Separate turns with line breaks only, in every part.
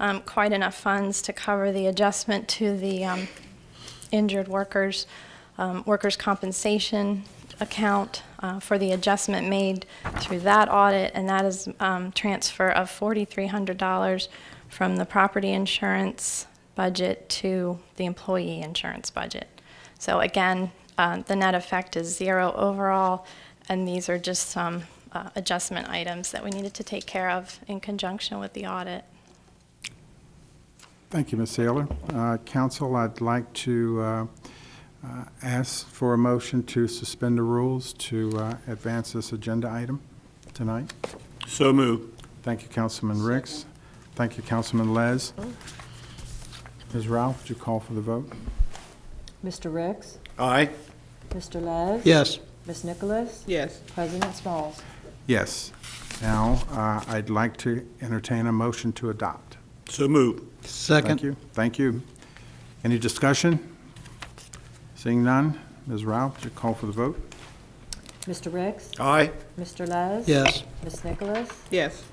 um, quite enough funds to cover the adjustment to the um, injured workers, um, workers' compensation account uh, for the adjustment made through that audit, and that is um, transfer of $4,300 from the property insurance budget to the employee insurance budget. So again, uh, the net effect is zero overall, and these are just some uh, adjustment items that we needed to take care of in conjunction with the audit.
Thank you, Ms. Saylor. Uh, Council, I'd like to uh, uh, ask for a motion to suspend the rules to uh, advance this agenda item tonight.
So move.
Thank you, Councilman Ricks. Thank you, Councilman Les. Ms. Ralph, would you call for the vote?
Mr. Ricks?
Aye.
Mr. Les?
Yes.
Ms. Nicholas?
Yes.
President Smalls?
Yes. Now, uh, I'd like to entertain a motion to adopt.
So move.
Thank
Second.
you. Thank you. Any discussion? Seeing none, Ms. Ralph, would you call for the vote?
Mr. Ricks?
Aye.
Mr. Les?
Yes.
Ms. Nicholas?
Yes.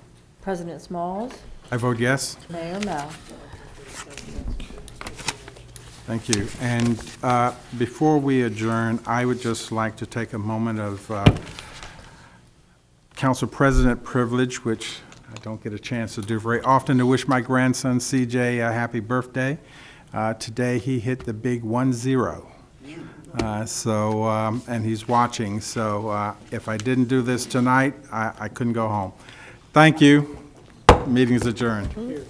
President Smalls?
I vote yes.
Mayor Mel?
Thank you. And uh, before we adjourn, I would just like to take a moment of uh, council president privilege, which I don't get a chance to do very often, to wish my grandson CJ a happy birthday. Uh, Today, he hit the big one-zero. Uh, So, um, and he's watching, so uh, if I didn't do this tonight, I I couldn't go home. Thank you. Meeting is adjourned.